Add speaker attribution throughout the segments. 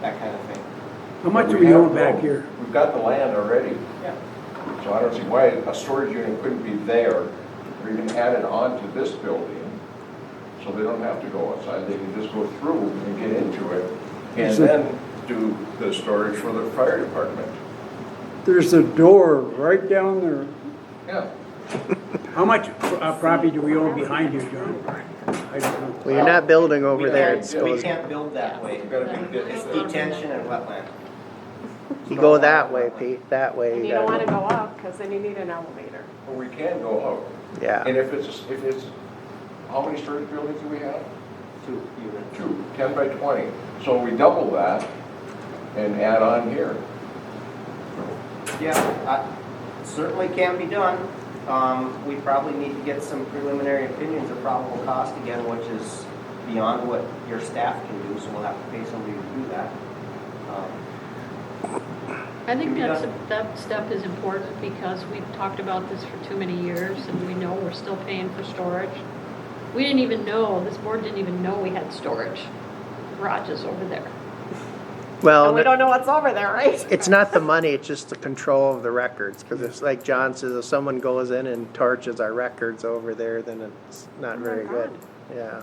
Speaker 1: that kind of thing.
Speaker 2: How much
Speaker 3: But
Speaker 2: do we
Speaker 3: have
Speaker 2: own back
Speaker 3: the-
Speaker 2: here?
Speaker 3: We've got the land already,
Speaker 1: Yeah.
Speaker 3: so I don't see why a storage unit couldn't be there or even added on to this building. So they don't have to go outside, they can just go through and get into it and
Speaker 2: Is it-
Speaker 3: then do the storage for the fire department.
Speaker 2: There's a door right down there.
Speaker 3: Yeah.
Speaker 2: How much uh, property do we own behind you, John? I don't know.
Speaker 4: Well, you're not building over there, it's
Speaker 1: We
Speaker 4: supposed,
Speaker 1: can't build that way.
Speaker 3: We've got a big ditch
Speaker 1: It's
Speaker 3: there.
Speaker 1: detention and wetland.
Speaker 4: you go that way, Pete, that way.
Speaker 5: And you don't want to go up because then you need an elevator.
Speaker 3: But we can go out.
Speaker 4: Yeah,
Speaker 3: And if it's, if it's, how many storage buildings do we have?
Speaker 1: Two units.
Speaker 3: Two, ten by twenty. So we double that and add on here.
Speaker 1: Yeah, I- certainly can be done. Um, We probably need to get some preliminary opinions of probable cost again, which is beyond what your staff can do, so we'll have to pay somebody to do that. Um,
Speaker 6: I think
Speaker 1: Yeah.
Speaker 6: that's, that step is important because we've talked about this for too many years and we know we're still paying for storage. We didn't even know, this board didn't even know we had storage garages over there.
Speaker 4: well,
Speaker 5: And we
Speaker 4: the-
Speaker 5: don't know what's over there, right?
Speaker 4: it's not the money, it's just the control of the records, because it's like John says, if someone goes in and torches our records over there, then it's not
Speaker 5: Oh my
Speaker 4: very good.
Speaker 5: God.
Speaker 4: Yeah.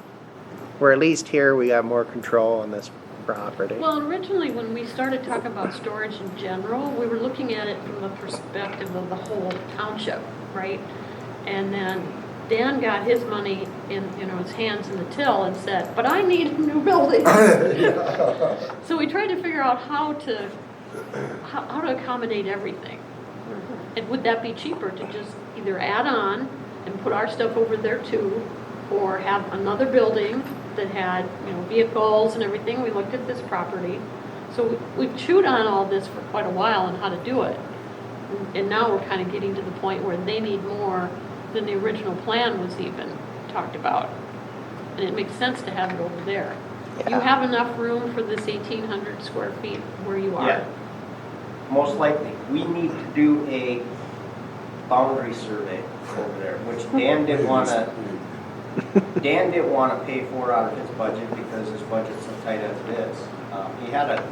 Speaker 4: Where at least here, we got more control on this property.
Speaker 6: Well, originally, when we started talking about storage in general, we were looking at it from the perspective of the whole township, right? And then Dan got his money in, you know, his hands in the till and said, but I need a new building. So we tried to figure out how to, how, how to accommodate everything. And would that be cheaper to just either add on and put our stuff over there too? Or have another building that had, you know, vehicles and everything? We looked at this property. So we- we've chewed on all this for quite a while and how to do it. And now we're kind of getting to the point where they need more than the original plan was even talked about. And it makes sense to have it over there. You
Speaker 4: Yeah.
Speaker 6: have enough room for this eighteen hundred square feet where you are.
Speaker 1: Yeah. Most likely, we need to do a boundary survey over there, which Dan didn't want to, Dan didn't want to pay for out of his budget because his budget's so tight as it is. Um, He had an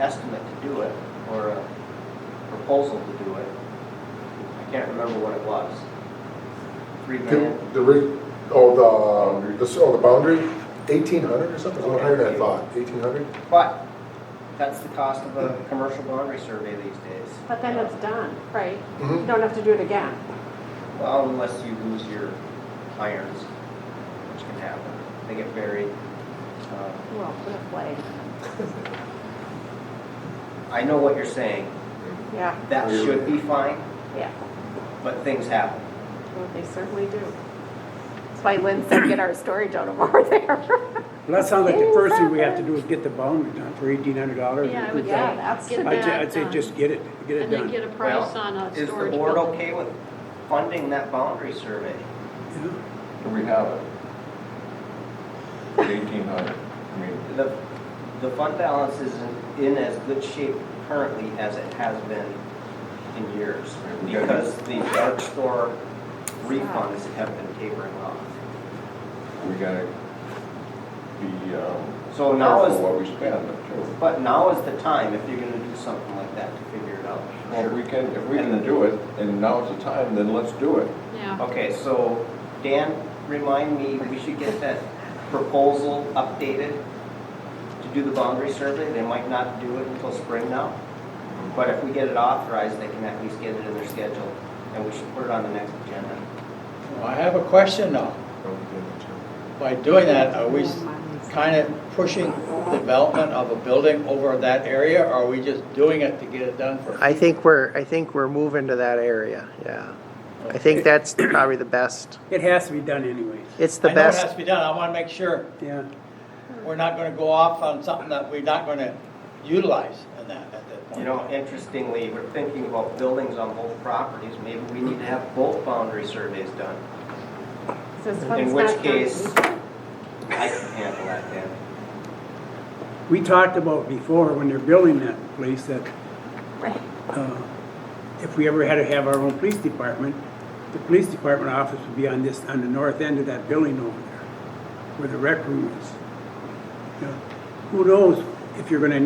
Speaker 1: estimate to do it, or a proposal to do it. I can't remember what it was. Three
Speaker 7: The,
Speaker 1: million?
Speaker 7: the, re- oh, the, the, oh, the boundary, eighteen hundred or something, it was higher than I thought, eighteen hundred?
Speaker 1: But that's the cost of a commercial boundary survey these days. Um,
Speaker 5: But then it's done, right? You
Speaker 4: Hmm.
Speaker 7: Mhm.
Speaker 5: don't have to do it again.
Speaker 1: Well, unless you lose your irons, which can happen. They get buried. Um,
Speaker 5: Well, good play.
Speaker 1: I know what you're saying.
Speaker 5: Yeah,
Speaker 1: That should be fine,
Speaker 5: yeah.
Speaker 1: but things happen.
Speaker 5: Well, they certainly do. That's why Lynn said, get our storage out of over there.
Speaker 2: Well, that sounds like the first thing we have to do is get the boundary done for eighteen hundred dollars.
Speaker 6: Yeah, I would
Speaker 5: Yeah,
Speaker 6: say,
Speaker 5: that's-
Speaker 6: get
Speaker 2: I'd say,
Speaker 6: that
Speaker 2: I'd say
Speaker 6: done.
Speaker 2: just get it, get it
Speaker 6: And then get
Speaker 2: done.
Speaker 6: a price
Speaker 1: Well,
Speaker 6: on a
Speaker 1: Is the
Speaker 6: storage
Speaker 1: board
Speaker 6: building.
Speaker 1: okay with funding that boundary survey?
Speaker 2: Yeah.
Speaker 3: And we have it. Eighteen hundred, I mean.
Speaker 1: The, the fund balance is in, in as good shape currently as it has been in years because the dark store refunds have been tapering off.
Speaker 3: we gotta be, um,
Speaker 1: So now
Speaker 3: careful
Speaker 1: is,
Speaker 3: what we spend, too.
Speaker 1: but now is the time if you're gonna do something like that to figure it out.
Speaker 3: Well, if we can, if we can do it, and now's the time, then let's do it.
Speaker 6: Yeah,
Speaker 1: Okay, so Dan, remind me, we should get that proposal updated to do the boundary survey. They might not do it until spring now, but if we get it authorized, they can at least get it in their schedule, and we should put it on the next agenda.
Speaker 8: I have a question now. By doing that, are we kind of pushing development of a building over that area? Or are we just doing it to get it done for?
Speaker 4: I think we're, I think we're moving to that area, yeah. I think that's probably the best,
Speaker 2: It has to be done anyways,
Speaker 4: it's the
Speaker 8: I know it has
Speaker 4: best,
Speaker 8: to be done. I want to make sure
Speaker 2: yeah.
Speaker 8: we're not going to go off on something that we're not going to utilize in that, at that point.
Speaker 1: You know, interestingly, we're thinking about buildings on both properties. Maybe we need to have both boundary surveys done. In which case, I can handle that, Dan.
Speaker 2: We talked about before, when they're building that place, that
Speaker 5: Right.
Speaker 2: uh, if we ever had to have our own police department, the police department office would be on this, on the north end of that building over there, where the rec room is. You know, Who knows if you're gonna